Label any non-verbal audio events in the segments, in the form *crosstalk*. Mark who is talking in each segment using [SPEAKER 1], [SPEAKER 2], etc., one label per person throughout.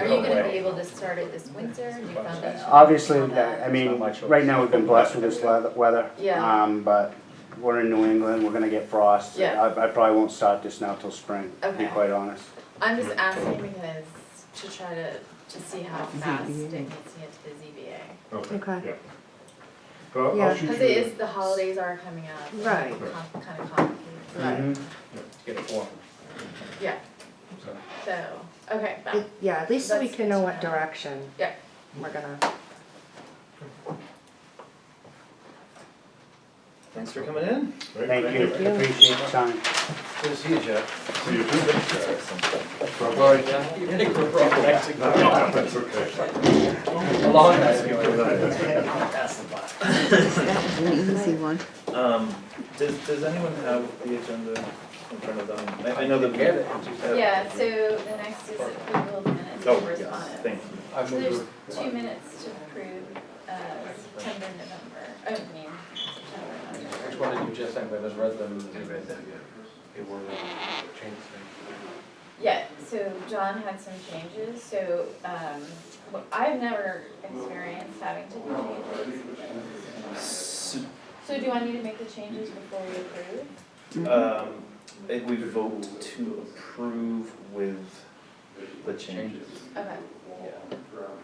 [SPEAKER 1] Are you gonna be able to start it this winter, new foundation?
[SPEAKER 2] Obviously,
[SPEAKER 1] all that?
[SPEAKER 2] I mean, right now we've been blessed with this leather- weather.
[SPEAKER 1] Yeah.
[SPEAKER 2] Um, but we're in New England, we're gonna get frost.
[SPEAKER 1] Yeah.
[SPEAKER 2] I, I probably won't start this now till spring, to be
[SPEAKER 1] Okay.
[SPEAKER 2] quite honest.
[SPEAKER 1] I'm just asking because to try to, to see how fast it can get to the
[SPEAKER 3] Okay,
[SPEAKER 4] Okay.
[SPEAKER 3] yeah. Well, I'll-
[SPEAKER 4] Yeah.
[SPEAKER 3] I'll
[SPEAKER 1] ZBA.
[SPEAKER 3] shoot you.
[SPEAKER 1] Cause it is, the holidays are coming up. and
[SPEAKER 4] Right.
[SPEAKER 1] it's com- Kinda complicated,
[SPEAKER 2] Mhm.
[SPEAKER 3] Get a form,
[SPEAKER 1] yeah,
[SPEAKER 3] so.
[SPEAKER 1] so, okay, fine.
[SPEAKER 4] It- Yeah, at least so we
[SPEAKER 1] That's
[SPEAKER 4] can
[SPEAKER 1] good
[SPEAKER 4] know
[SPEAKER 1] to
[SPEAKER 4] what
[SPEAKER 1] know.
[SPEAKER 4] direction
[SPEAKER 1] yeah,
[SPEAKER 4] we're gonna,
[SPEAKER 5] Thanks for coming in.
[SPEAKER 3] Great,
[SPEAKER 2] Thank you,
[SPEAKER 4] you.
[SPEAKER 2] appreciate your time.
[SPEAKER 5] Good to see you, Jeff.
[SPEAKER 3] See
[SPEAKER 5] I
[SPEAKER 3] you
[SPEAKER 5] think we're all connected.
[SPEAKER 3] That's okay.
[SPEAKER 5] A long night.
[SPEAKER 3] *laughs*
[SPEAKER 6] Um, does, does anyone have the agenda in front of them? I, I know that we have.
[SPEAKER 1] Yeah, so the next is approval of minutes
[SPEAKER 6] Oh,
[SPEAKER 1] and
[SPEAKER 6] yes,
[SPEAKER 1] correspondence.
[SPEAKER 6] thank you.
[SPEAKER 5] I
[SPEAKER 1] So there's
[SPEAKER 5] moved.
[SPEAKER 1] two minutes to approve, uh, September, November, oh, I mean, September, November.
[SPEAKER 5] Which one did you just send? I just read them. They were uh, changed.
[SPEAKER 1] Yeah, so John had some changes, so, um, wh- I've never experienced having to do changes.
[SPEAKER 6] So,
[SPEAKER 1] So do I need to make the changes before we approve?
[SPEAKER 6] um, if we vote to approve with the changes,
[SPEAKER 1] Okay,
[SPEAKER 6] yeah.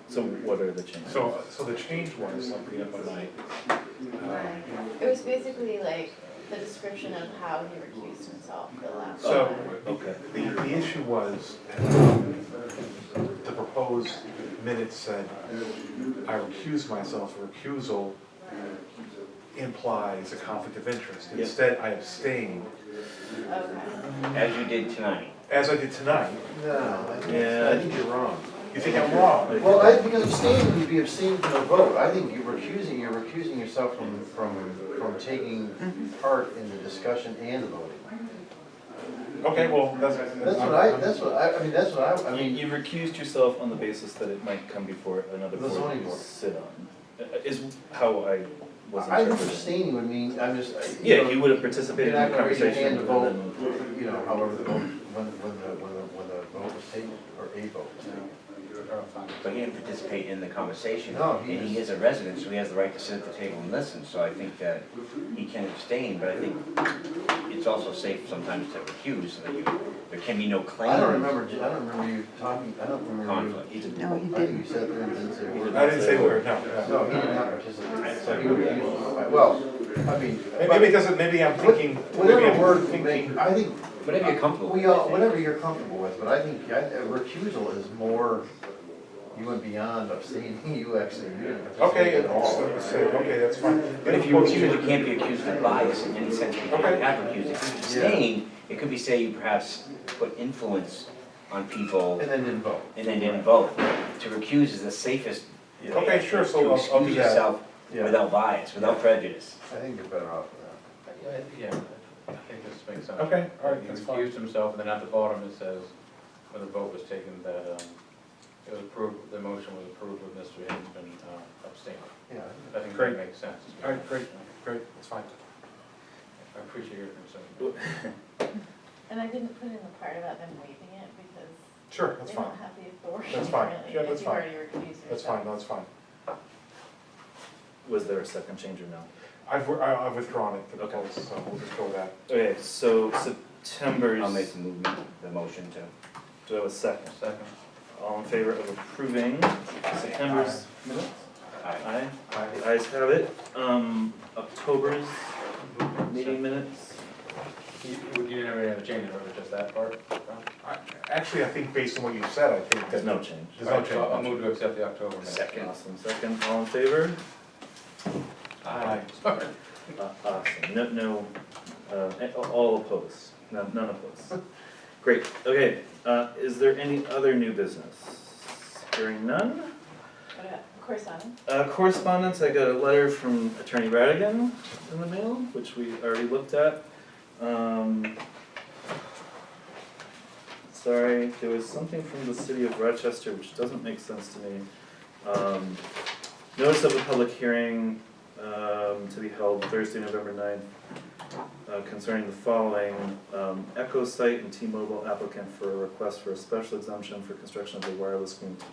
[SPEAKER 6] So what are the changes?
[SPEAKER 3] So, so the change one is something up at night.
[SPEAKER 1] right. It was basically like the description of how he recused himself the last
[SPEAKER 3] So-
[SPEAKER 1] time.
[SPEAKER 6] Okay,
[SPEAKER 3] The, the issue was, um, the proposed minutes said, I recuse myself, recusal implies a conflict of interest.
[SPEAKER 6] Yeah.
[SPEAKER 3] Instead, I abstained,
[SPEAKER 1] Okay,
[SPEAKER 7] as you did tonight.
[SPEAKER 3] as I did tonight.
[SPEAKER 5] No.
[SPEAKER 6] yeah, I
[SPEAKER 3] I
[SPEAKER 6] think
[SPEAKER 3] think you're wrong. You think I'm wrong?
[SPEAKER 5] Well, I, because abstaining, you'd be abstaining from the vote. I think you're recusing, you're recusing yourself from, from, from taking
[SPEAKER 1] Mm-hmm.
[SPEAKER 5] part in the discussion and the voting.
[SPEAKER 3] Okay, well, that's.
[SPEAKER 5] That's what I, that's what I, I mean, that's what I, I
[SPEAKER 6] You,
[SPEAKER 5] mean,
[SPEAKER 6] you recused yourself on the basis that it might come before another
[SPEAKER 5] The
[SPEAKER 6] board
[SPEAKER 5] zoning
[SPEAKER 6] you
[SPEAKER 5] board.
[SPEAKER 6] sit on, Uh, is how I was
[SPEAKER 5] I think
[SPEAKER 6] interpreting.
[SPEAKER 5] abstaining would mean, I'm just, you know.
[SPEAKER 6] Yeah, you would have
[SPEAKER 5] You're
[SPEAKER 6] participated
[SPEAKER 5] not
[SPEAKER 6] in the
[SPEAKER 5] gonna raise your hand
[SPEAKER 6] conversation
[SPEAKER 5] to
[SPEAKER 6] and
[SPEAKER 5] vote,
[SPEAKER 6] then-
[SPEAKER 5] you know, however the vote, when, when the, when the, when the vote was taken, or a vote was taken.
[SPEAKER 7] But he didn't participate in the conversation.
[SPEAKER 5] No, he
[SPEAKER 7] And he is
[SPEAKER 5] just-
[SPEAKER 7] a resident, so he has the right to sit at the table and listen, so I think that he can abstain, but I think it's also safe sometimes to recuse, so that you, there can be no claim.
[SPEAKER 5] I don't remember, I don't remember you talking, I don't remember you.
[SPEAKER 7] Conflict.
[SPEAKER 5] No, he didn't. I think you said there and didn't say a word.
[SPEAKER 3] I didn't say word, no, no.
[SPEAKER 5] No, he did not participate, so he would be, well, I mean.
[SPEAKER 3] Maybe it doesn't, maybe I'm thinking, maybe
[SPEAKER 5] Whatever
[SPEAKER 3] I'm
[SPEAKER 5] word you make,
[SPEAKER 3] thinking.
[SPEAKER 5] I think,
[SPEAKER 7] Whatever you're comfortable
[SPEAKER 5] we
[SPEAKER 7] with.
[SPEAKER 5] all, whatever you're comfortable with, but I think, I, a recusal is more, you went beyond abstaining, *laughs* you actually, you didn't
[SPEAKER 3] Okay,
[SPEAKER 5] participate at all.
[SPEAKER 3] it's- it's- okay, that's fine.
[SPEAKER 7] But if you recuse, you can't be accused of bias in any sense, because
[SPEAKER 3] Okay.
[SPEAKER 7] you're not recused. If you abstain, it could be, say, you perhaps put influence on people
[SPEAKER 5] And then didn't vote,
[SPEAKER 7] and then didn't vote. To recuse is the safest way.
[SPEAKER 3] Okay, sure, so I'll- I'll
[SPEAKER 7] To
[SPEAKER 3] do
[SPEAKER 7] excuse
[SPEAKER 3] that.
[SPEAKER 7] yourself
[SPEAKER 5] Yeah.
[SPEAKER 7] without bias, without prejudice.
[SPEAKER 5] I think you're better off with that.
[SPEAKER 8] Yeah, I think this makes sense.
[SPEAKER 3] Okay, all right, that's
[SPEAKER 8] He
[SPEAKER 3] fine.
[SPEAKER 8] recused himself, and then at the bottom it says, when the vote was taken, that um, it was approved, the motion was approved with Mr. Hinsman uh, abstaining.
[SPEAKER 5] Yeah.
[SPEAKER 8] I think
[SPEAKER 3] Great.
[SPEAKER 8] that makes sense.
[SPEAKER 3] All right, great, great, that's fine.
[SPEAKER 8] I appreciate your concern.
[SPEAKER 1] and I didn't put in the part about them waiving it because
[SPEAKER 3] Sure, that's
[SPEAKER 1] they
[SPEAKER 3] fine.
[SPEAKER 1] don't have the authority really.
[SPEAKER 3] That's fine. Yeah,
[SPEAKER 1] if
[SPEAKER 3] that's
[SPEAKER 1] you've
[SPEAKER 3] fine.
[SPEAKER 1] already recused
[SPEAKER 3] That's
[SPEAKER 1] yourself.
[SPEAKER 3] fine, that's fine.
[SPEAKER 6] Was there a second change or no?
[SPEAKER 3] I've, I- I've withdrawn it, the
[SPEAKER 6] Okay.
[SPEAKER 3] proposal, so we'll just go with that.
[SPEAKER 6] Okay, so September's,
[SPEAKER 7] I'll make the movement, the motion to.
[SPEAKER 6] do I have a second?
[SPEAKER 8] Second.
[SPEAKER 6] All in favor of approving September's minutes? Aye.
[SPEAKER 3] Aye.
[SPEAKER 6] The ayes have it. Um, October's meeting minutes?
[SPEAKER 8] You you didn't have any other changes, or was it just that part? Ron?
[SPEAKER 3] I- Actually, I think based on what you said, I think
[SPEAKER 6] There's
[SPEAKER 3] that.
[SPEAKER 6] no change.
[SPEAKER 3] There's no
[SPEAKER 8] So I'll
[SPEAKER 3] change.
[SPEAKER 8] move to accept the October minutes.
[SPEAKER 7] Second.
[SPEAKER 6] Awesome, second, all in favor?
[SPEAKER 3] Aye.
[SPEAKER 6] Uh, Awesome, no, no, uh, a- all opposed, none, none opposed. Great, okay, uh, is there any other new business? Hearing none?
[SPEAKER 1] What about correspondence?
[SPEAKER 6] Uh, correspondence, I got a letter from Attorney Radigan in the mail, which we already looked at. Um, sorry, there was something from the city of Rochester which doesn't make sense to me. Um, notice of a public hearing, um, to be held Thursday, November ninth. uh, concerning the following, um, Echo Site and T-Mobile applicant for a request for a special exemption for construction of a wireless communications